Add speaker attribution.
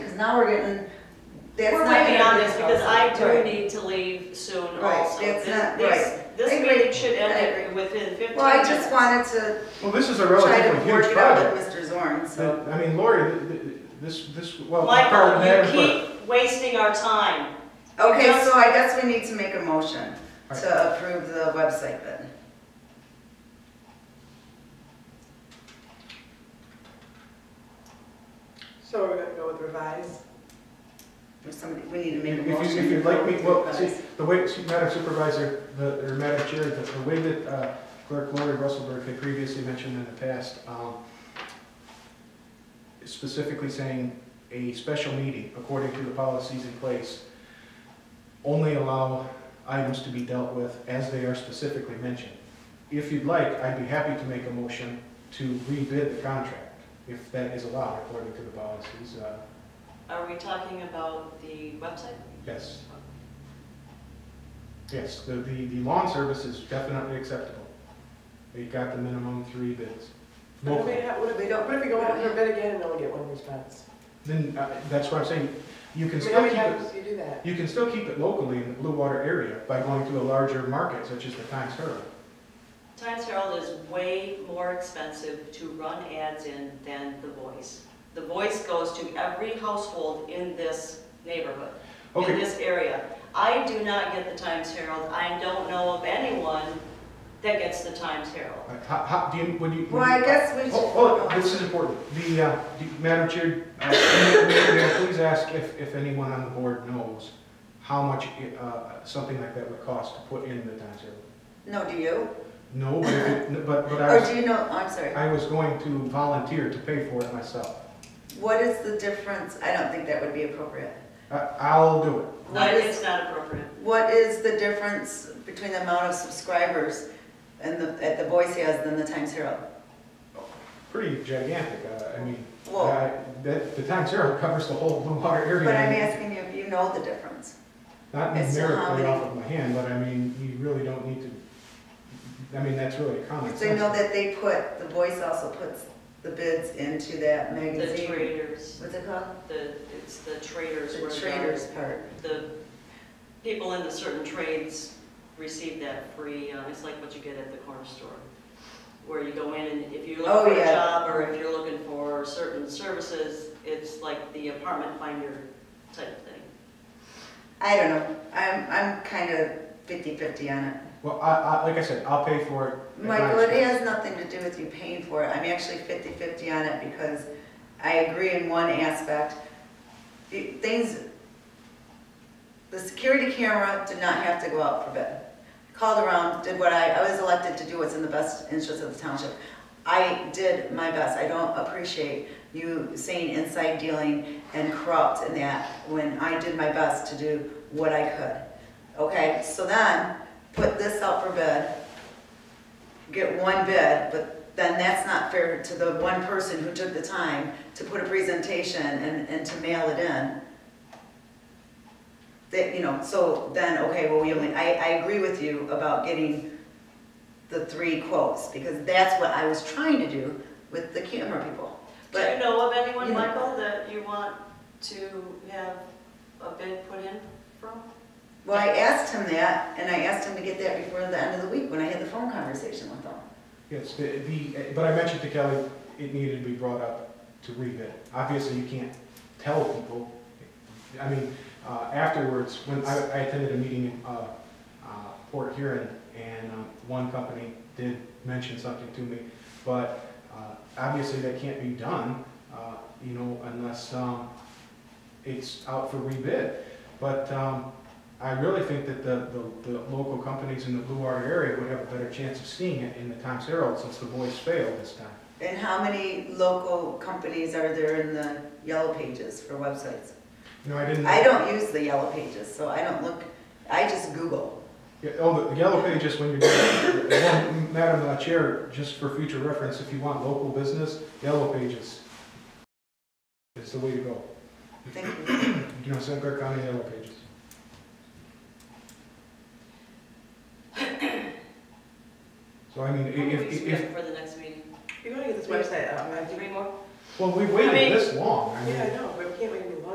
Speaker 1: now we're getting, that's
Speaker 2: We're
Speaker 1: not.
Speaker 2: waiting on
Speaker 1: gonna be
Speaker 2: this because I do
Speaker 1: right.
Speaker 2: need to leave soon
Speaker 1: Right,
Speaker 2: also.
Speaker 1: that's
Speaker 2: This-
Speaker 1: not-
Speaker 2: this-
Speaker 1: right. I
Speaker 2: This
Speaker 1: agree.
Speaker 2: meeting should
Speaker 1: I
Speaker 2: end within fifteen
Speaker 1: Well, I just
Speaker 2: minutes.
Speaker 1: wanted to
Speaker 3: Well, this is a
Speaker 1: try to
Speaker 3: relatively
Speaker 1: work
Speaker 3: huge
Speaker 1: it out
Speaker 3: project.
Speaker 1: with Mr. Zorn, so.
Speaker 3: But, I mean, Lori, th- th- this, this, well.
Speaker 2: Michael,
Speaker 3: Carl,
Speaker 2: you keep wasting our time.
Speaker 1: Okay,
Speaker 2: Yes.
Speaker 1: so I guess we need to make a motion
Speaker 3: Alright.
Speaker 1: to approve the website then.
Speaker 4: So we're gonna go with revised?
Speaker 1: If somebody, we need to make a
Speaker 3: If you-
Speaker 1: motion.
Speaker 3: if you'd like me, well, see,
Speaker 1: Guys.
Speaker 3: the way, see, Madam Supervisor, the, or Madam Chair, the, the way that uh, Clerk Lori Russellberg had previously mentioned in the past, um, specifically saying a special meeting, according to the policies in place, only allow items to be dealt with as they are specifically mentioned. If you'd like, I'd be happy to make a motion to rebid the contract, if that is allowed according to the policies, uh,
Speaker 2: Are we talking about the website?
Speaker 3: Yes. Yes, the, the, the lawn service is definitely acceptable. They got the minimum three bids.
Speaker 4: What if we,
Speaker 3: Local.
Speaker 4: have- what if we don't, what if we go out for a bid again and only get one response?
Speaker 3: Then, uh, that's what I'm saying, you
Speaker 4: I
Speaker 3: can
Speaker 4: mean, how
Speaker 3: still
Speaker 4: many
Speaker 3: keep it,
Speaker 4: times do you do that?
Speaker 3: you can still keep it locally in the Blue Water area by going to a larger market such as the Times Herald.
Speaker 2: Times Herald is way more expensive to run ads in than The Voice. The Voice goes to every household in this neighborhood, in
Speaker 3: Okay,
Speaker 2: this area. I do not get the Times Herald. I don't know of anyone that gets the Times Herald.
Speaker 3: uh, how, how, do you, would you? would
Speaker 1: Well, I
Speaker 3: you-
Speaker 1: guess we should.
Speaker 3: Oh, oh, this is important. The, uh, do- Madam Chair, uh, may- may- may I please ask if, if anyone on the board knows how much, uh, something like that would cost to put in the Times Herald?
Speaker 1: No, do you?
Speaker 3: No, but, it- but, but I
Speaker 1: Or
Speaker 3: was,
Speaker 1: do you know, I'm sorry.
Speaker 3: I was going to volunteer to pay for it myself.
Speaker 1: What is the difference? I don't think that would be appropriate.
Speaker 3: I, I'll do it.
Speaker 2: No, it's not appropriate.
Speaker 1: What is the difference between the amount of subscribers and the, that the Voice has than the Times Herald?
Speaker 3: Pretty gigantic, uh, I mean,
Speaker 1: Well,
Speaker 3: I, that, the Times Herald covers the whole Blue Water area.
Speaker 1: but I'm asking you if you know the difference.
Speaker 3: Not
Speaker 1: as to how
Speaker 3: numerically
Speaker 1: many-
Speaker 3: off of my hand, but I mean, you really don't need to, I mean, Oh, that's really a common
Speaker 1: So you
Speaker 3: sense.
Speaker 1: know that they put, the Voice also puts the bids into that
Speaker 2: The
Speaker 1: magazine.
Speaker 2: traders,
Speaker 1: What's it called?
Speaker 2: the, it's the traders
Speaker 1: The
Speaker 2: where
Speaker 1: traders
Speaker 2: the,
Speaker 1: part.
Speaker 2: the people in the certain trades receive that free, um, it's like what you get at the corner store. Where you go in and if you're
Speaker 1: Oh,
Speaker 2: looking for a
Speaker 1: yeah.
Speaker 2: job or if you're looking for certain services, it's like the apartment finder type thing.
Speaker 1: I don't know. I'm, I'm kind of fifty-fifty on it.
Speaker 3: Well, I, I, like I said, I'll pay for it. at my
Speaker 1: Michael, it
Speaker 3: expense.
Speaker 1: has nothing to do with you paying for it. I'm actually 50/50 on it because I agree in one aspect. The Things, the security camera did not have to go out for bid. Called around, did what I, I was elected to do what's in the best interest of the township. I did my best. I don't appreciate you saying inside dealing and corrupt and that when I did my best to do what I could. Okay, so then, put this out for bid get one bid, but then that's not fair to the one person who took the time to put a presentation and, and to mail it in. That, you know, so then, okay, well, we only, I, I agree with you about getting the three quotes, because that's what I was trying to do with the camera people.
Speaker 2: Do you
Speaker 1: But
Speaker 2: know of anyone,
Speaker 1: Yeah.
Speaker 2: Michael, that you want to have a bid put in from?
Speaker 1: Well, I asked him that, and I asked him to get that before the end of the week, when I had the phone conversation with him.
Speaker 3: Yes, the, the, but I mentioned to Kelly, it needed to be brought up to rebid. Obviously, you can't tell people, I mean, uh, afterwards, when I, I attended a meeting in, uh, uh, Port Huron, and, um, one company did mention something to me, but, uh, obviously, that can't be done, uh, you know, unless, um, it's out for rebid. But, um, I really think that the, the, the local companies in the Blue Water area would have a better chance of seeing it in the Times Herald since the voice failed this time.
Speaker 1: And how many local companies are there in the yellow pages for websites?
Speaker 3: You know, I didn't.
Speaker 1: I don't use the yellow pages, so I don't look, I just Google.
Speaker 3: Yeah, Oh, the- the yellow pages when you're, doing- well, Madam uh, Chair, just for future reference, if you want local business, yellow pages is the way to go.
Speaker 1: Thank you.
Speaker 3: You know, St. Clair County yellow pages. So I mean,
Speaker 2: How many
Speaker 3: if,
Speaker 2: weeks
Speaker 3: if,
Speaker 2: we
Speaker 3: if,
Speaker 2: got For the next meeting?
Speaker 4: You're gonna get this website out, I think.
Speaker 2: Three more?
Speaker 3: well, we
Speaker 2: I mean-
Speaker 3: waited this long, I mean.
Speaker 4: Yeah, I know.